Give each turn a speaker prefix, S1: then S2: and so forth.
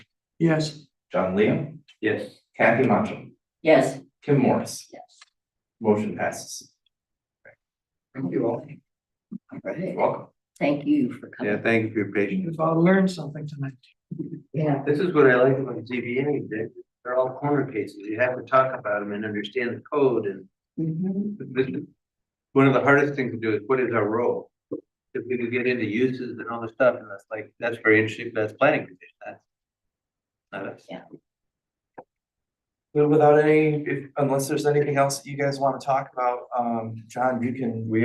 S1: Yes.
S2: John Liam,
S3: Yes.
S2: Kathy Macho,
S4: Yes.
S2: Kim Morris.
S4: Yes.
S2: Motion passes.
S4: Thank you all. All
S2: You're
S4: right,
S2: Welcome.
S4: thank you for
S3: Yeah,
S4: coming.
S3: thank you for your patience.
S1: You've all learned something tonight.
S4: Yeah.
S3: This is what I like about ZBA, they're, they're all corner cases. You have to talk about them and understand the code and
S4: Mhm.
S3: this, one of the hardest things to do is what is our role? If we could get into uses and all this stuff, and that's like, that's very interesting, but that's planning commission, that's. Not us.
S2: Well, Without any, if- unless there's anything else that you guys want to talk about, um, John, you can, we